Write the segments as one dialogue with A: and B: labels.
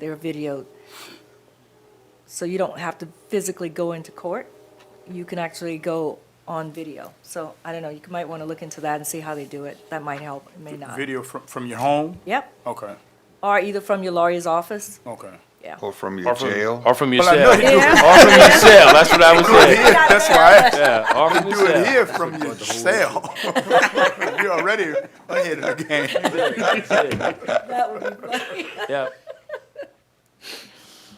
A: they're videoed. So you don't have to physically go into court. You can actually go on video. So I don't know, you might want to look into that and see how they do it. That might help, it may not.
B: Video from, from your home?
A: Yep,
B: Okay,
A: or either from your lawyer's office,
B: okay.
A: yeah.
C: Or from your jail?
D: Or from your
B: Well, I know
D: cell. Or from
B: you
D: your
B: do,
D: cell. That's what I was saying.
B: Oh, that's why
D: Yeah. Or
B: I
D: from
B: do
D: your
B: it
D: cell.
B: here from your cell. You're already ahead of the game.
A: That would be funny.
D: Yeah.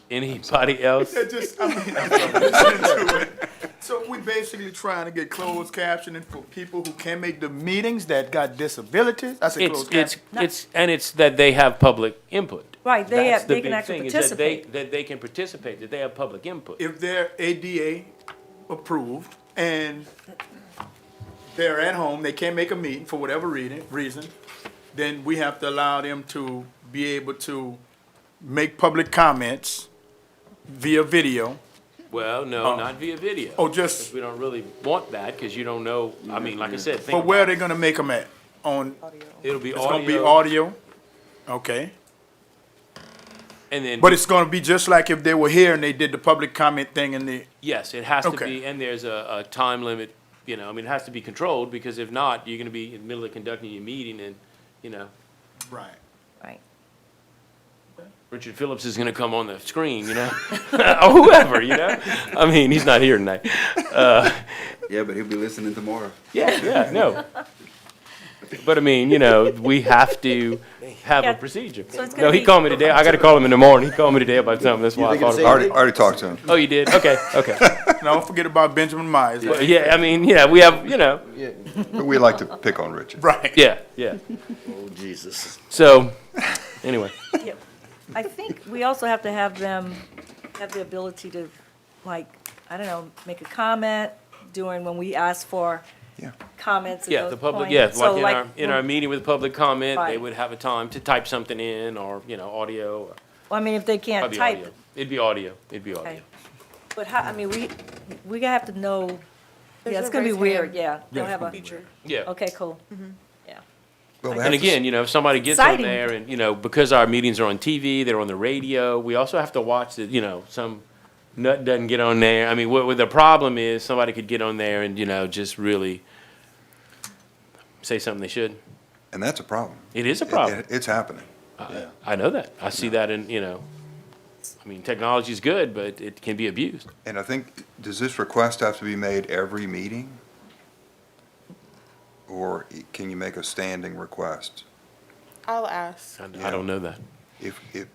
D: Anybody else?
B: It just, I mean, I'm listening to it. So we basically trying to get closed captioning for people who can't make the meetings that got disabilities. I said
D: It's
B: closed
D: it's
B: captioning.
D: it's and it's that they have public input.
A: Right, they
D: That's
A: have-
D: the
A: they can
D: big
A: actually
D: thing, is that they-
A: participate.
D: That they can participate, that they have public input.
B: If they're ADA approved and they're at home, they can't make a meeting for whatever reading, reason, then we have to allow them to be able to make public comments via video
D: Well, no, not via video.
B: or Oh. just,
D: We don't really want that because you don't know, I mean, like I said, think
B: but where are
D: about
B: they
D: it.
B: gonna make them at? On,
D: It'll be
B: it's gonna be
D: audio
B: audio? Okay.
D: and then,
B: But it's gonna be just like if they were here and they did the public comment thing and the,
D: yes, it has to
B: Okay.
D: be, and there's a, a time limit, you know, I mean, it has to be controlled because if not, you're gonna be in the middle of conducting your meeting and, you know,
B: right.
A: Right.
D: Richard Phillips is gonna come on the screen, you know? Or whoever, you know? I mean, he's not here tonight.
C: Yeah, but he'll be listening tomorrow.
D: Yeah, yeah, no. But I mean, you know, we have to have
A: Yeah.
D: a procedure.
A: So it's gonna
D: No, he
A: be-
D: called me today. I gotta call him in the morning. He called me today about something. That's why I
C: I
D: called him.
C: already, already talked to him.
D: Oh, you did? Okay, okay.
B: Now, don't forget about Benjamin Myers.
D: Well, yeah, I mean, yeah, we have, you know,
C: But we like to pick on Richard.
B: Right.
D: yeah, yeah.
E: Oh, Jesus.
D: So, anyway,
A: Yep. I think we also have to have them have the ability to, like, I don't know, make a comment during when we ask for
C: Yeah.
A: comments at
D: yeah, the
A: those
D: public,
A: points.
D: yeah, like
A: So,
D: in our, in our meeting with public comment, they
A: Right.
D: would have a time to type something in or, you know, audio. or-
A: I mean, if they can't
D: Probably
A: type,
D: audio. It'd be audio. It'd be audio.
A: okay. But how, I mean, we, we gonna have to know, yeah,
F: There's
A: it's
F: no
A: gonna be
F: raised
A: weird,
F: hand.
A: yeah. They'll have a,
D: Yeah.
A: okay, cool. Yeah,
C: But we have
D: And
C: to-
D: again, you know, if somebody gets on
A: exciting.
D: there and, you know, because our meetings are on TV, they're on the radio, we also have to watch that, you know, some nut doesn't get on there. I mean, what, what the problem is, somebody could get on there and, you know, just really say something they should.
C: And that's a problem.
D: It is a
C: It-
D: problem.
C: it- It's happening.
D: I, I know that. I see that in, you know, I mean, technology is good, but it can be abused.
C: And I think, does this request have to be made every meeting? Or i- can you make a standing request?
F: I'll ask.
D: I, I don't know that.
C: If, if,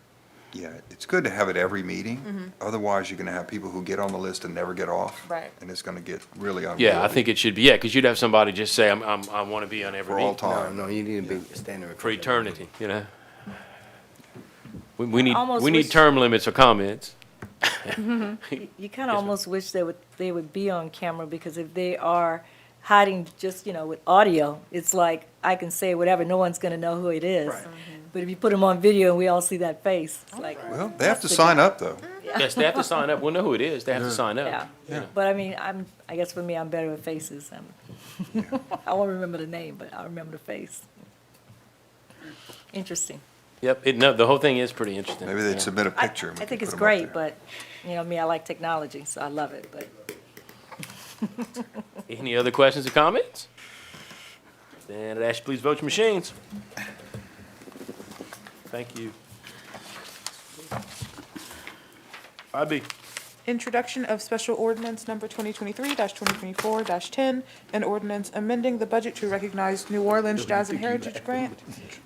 C: yeah, it's good to have it every
A: Mm-hmm.
C: meeting. Otherwise, you're gonna have people who get on the list and never get off.
F: Right.
C: And it's gonna get really unwieldy.
D: Yeah, I think it should be, yeah, because you'd have somebody just say, I'm, I'm, I want to be on every
C: For all
D: meeting.
E: No,
C: time.
E: no, you need to be standing.
D: for eternity, you know? We, we need,
A: almost
D: we need
A: wish-
D: term limits or comments.
A: You- you kinda almost wish they would, they would be on camera, because if they are hiding just, you know, with audio, it's like, I can say whatever, no one's gonna know who it is.
B: Right.
A: But if you put them on video and we all see that face, it's like,
C: Well, they have to sign up, though.
D: Yes, they have to sign up. We'll know who it is. They have to sign
A: yeah.
D: up. Yeah.
A: But I mean, I'm, I guess for me, I'm better with faces. I'm- I won't remember the name, but I'll remember the face. Interesting.
D: Yep, it, no, the whole thing is pretty interesting.
C: Maybe they'd submit a
A: I-
C: picture. and we
A: I
C: could
A: think
C: put
A: it's
C: 'em up
A: great,
C: there.
A: but, you know, me, I like technology, so I love it, but
D: Yeah. Any other questions or comments? Then I'd ask you please vote your machines. Thank you. Five B.
F: Introduction of special ordinance number 2023-2024-10, an ordinance amending the budget to recognize New Orleans Jazz and Heritage Grant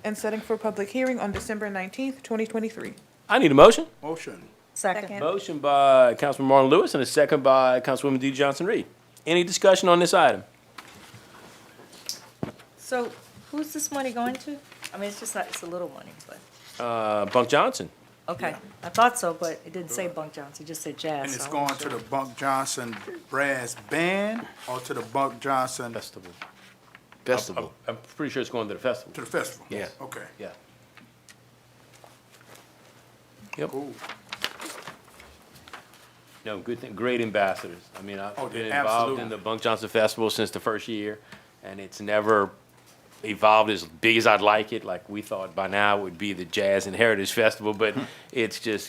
F: and setting for public hearing on December 19th, 2023.
D: I need a motion.
B: Motion.
A: second.
D: Motion by Councilman Marlon Lewis and a second by Councilwoman D. Johnson Reed. Any discussion on this item?
A: So who's this money going to? I mean, it's just not, it's a little money, but,
D: Uh, Bunk Johnson.
A: okay. I thought so, but it didn't say Bunk Johnson, it just said jazz.
B: And
A: so
B: it's
A: I wasn't
B: going to the Bunk Johnson Brass Band or to the Bunk Johnson, to
D: Festival.
E: Festival.
D: I'm pretty sure it's going to the festival.
B: the festival?
E: Yeah.
B: Okay.
D: Yeah. Yep.
B: Cool.
D: No, good thing, great ambassadors. I mean, I've
B: Oh,
D: been
B: yeah,
D: involved in
B: absolutely.
D: the Bunk Johnson Festival since the first year, and it's never evolved as big as I'd like it. Like we thought by now it would be the Jazz and Heritage Festival, but it's just